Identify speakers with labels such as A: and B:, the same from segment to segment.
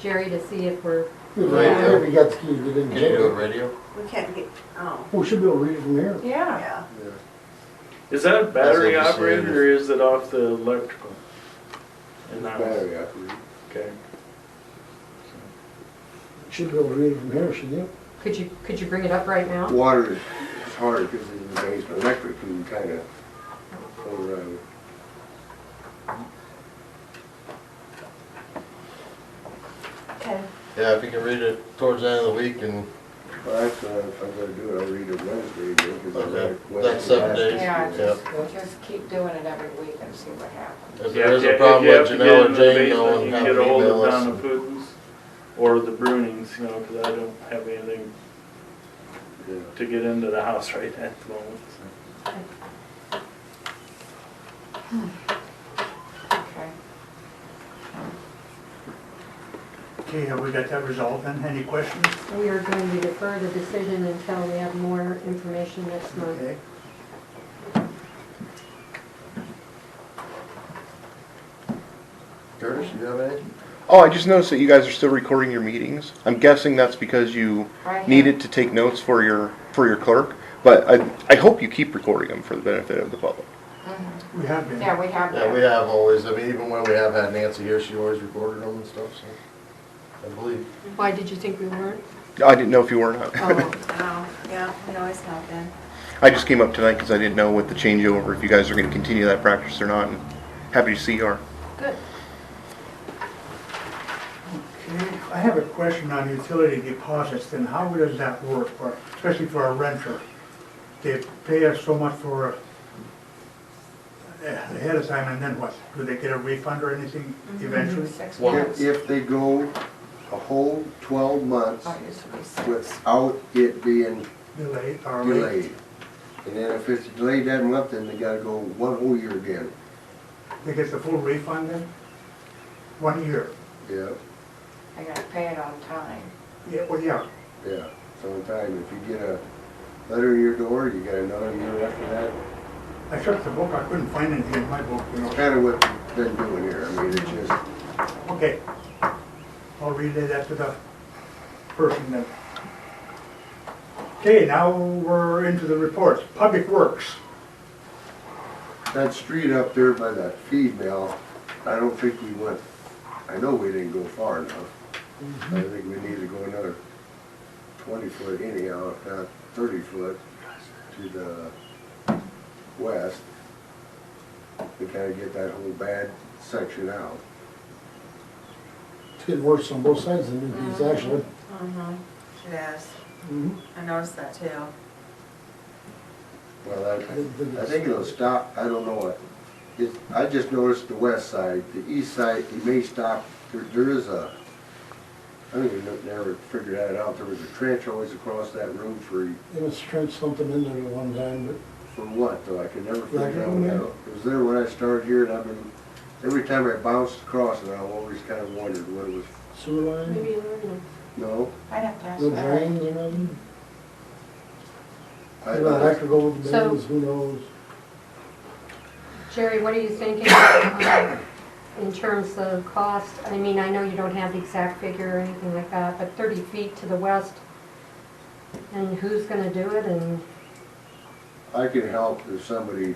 A: Jerry to see if we're,
B: Right,
C: we got the keys, we didn't
B: Can you
C: get
B: do a
C: it.
B: radio?
D: We can't get, oh,
C: We should be able to read it from here.
E: Yeah.
D: yeah.
F: Is that a battery
B: That's what you said.
F: operated or is it off the electrical? And that was-
G: Battery operated.
F: Okay.
C: Should be able to read it from here, shouldn't you?
A: could you, could you bring it up right now?
G: Water is hard because it's in the basement. Electric, we can kind of go around.
D: Okay.
B: Yeah, if you can read it towards the end of the week and
G: Well, that's, uh, if I'm gonna do it, I'll read it Wednesday because I
B: Okay.
G: read it
B: That's
G: Wednesday.
B: seven
G: last
B: days.
G: week.
E: Yeah,
B: Yep.
E: just, just keep doing it every week and see what happens.
B: if
F: Yeah,
B: there is
F: yeah,
B: a
F: if
B: problem,
F: you
B: let
F: have to get
B: Janelle
F: in
B: or
F: the
B: Jane
F: basement,
B: know and
F: you
B: have
F: can
B: them
F: Get ahold
B: email
F: of
B: us.
F: Donna Putin's or the Brunings, you know, because I don't have anything
G: Yeah.
F: to get into the house right at the moment. so.
E: Okay.
H: Okay, have we got that resolved then? Any questions?
A: We are going to defer the decision until we have more information next month.
H: Okay.
B: Curtis, you have any?
I: Oh, I just noticed that you guys are still recording your meetings. I'm guessing that's because you
E: I have-
I: needed to take notes for your, for your clerk, but I, I hope you keep recording them for the benefit of the public.
H: We have been.
E: Yeah, we have
B: Yeah, we
E: that.
B: have always, I mean, even when we have had Nancy here, she always recorded them and stuff, so, I believe.
A: Why did you think we weren't?
I: I didn't know if you were or not.
A: Oh,
D: Oh, yeah, we always have been.
I: I just came up tonight because I didn't know what the changeover, if you guys are gonna continue that practice or not, and happy to see you are.
D: Good.
H: Okay, I have a question on utility deposits, then how does that work, for- especially for a renter? They pay us so much for uh, ahead of time, and then what? Do they get a refund or anything eventually?
E: Mm-hmm. Six
B: Well,
E: months.
G: If, if they go a whole twelve months
E: Oh, it used to be six.
G: without it being
H: Delayed or late?
G: delayed. And then if it's delayed that month, then they gotta go one whole year again.
H: They get the full refund then? One year?
G: Yeah,
E: I gotta pay it on time.
H: Yeah, well, yeah.
G: yeah. Sometime if you get a letter in your door, you got another year after that.
H: I checked the book, I couldn't find anything in my book, you know.
G: It's kinda what we've been doing here. I mean, it's just,
H: Okay. I'll relay that to the person then. Okay, now we're into the reports. Public Works.
G: That street up there by that feed mill, I don't think we went, I know we didn't go far enough. I think we need to go another twenty foot anyhow, if not thirty foot to the west. We gotta get that whole bad section out.
C: It's getting worse on both sides than it is actually.
D: Mm-hmm. Yes,
C: Mhm.
D: I noticed that too.
G: Well, I,
C: I didn't think
G: I
C: it's-
G: think it'll stop, I don't know what. It, I just noticed the west side, the east side, it may stop, there, there is a, I don't even know, never figured that out, there was a trench always across that road for,
C: It was trenched something in there at one time, but
G: for what though, I could never
C: Like
G: figure
C: that
G: out
C: one
G: what
C: there?
G: that- It was there when I started here and I've been, every time I bounced across it, I always kind of wondered what it was,
C: sewer line,
A: maybe an ordinance.
G: no?
E: I'd have to ask
C: the
E: Larry.
C: drains and everything.
G: I-
C: Well, Electrical,
A: So-
C: bills, who knows?
A: Jerry, what are you thinking um, in terms of cost? I mean, I know you don't have the exact figure or anything like that, but 30 feet to the west, and who's going to do it, and
G: I can help if somebody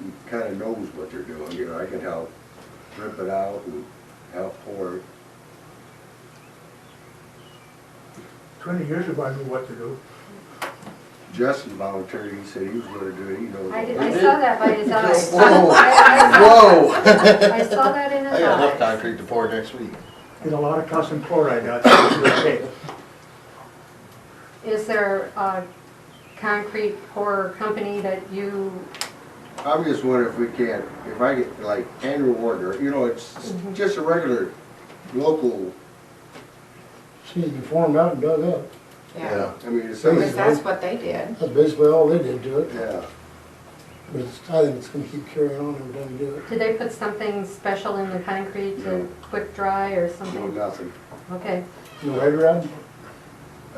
G: who kinda knows what they're doing, you know, I can help rip it out and help pour it.
H: Twenty years ago, I knew what to do.
G: Justin volunteered, he said he was gonna do it, he knows.
A: I did-
B: We
A: I
B: did.
A: saw that by his eyes.
G: Whoa,
A: I
G: whoa!
A: I saw that in his
B: I got enough
A: eyes.
B: concrete to pour next week.
H: There's a lot of calcium chloride out there. Okay.
A: Is there a concrete pourer company that you,
G: I'm just wondering if we can, if I get like Andrew Warner, you know, it's
A: Mm-hmm.
G: just a regular local,
C: She needs to be formed out and dug up.
E: Yeah.
G: I mean, it's,
E: Because
G: yeah.
E: that's what they did.
C: That's basically all they did to it. But it's, I think it's gonna keep carrying on every time we do it.
A: did they put something special in the concrete
G: No.
A: to quick dry or
G: No,
A: something?
G: nothing.
A: Okay,
C: No head rod?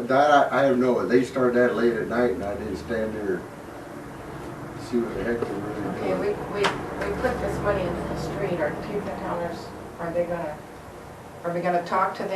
G: That, I, I have no, they started that late at night and I didn't stand there, and see what the heck they were
E: Okay,
G: really
E: we,
G: doing.
E: we, we put this money into the street, are people tellers, are they gonna, are we gonna talk to them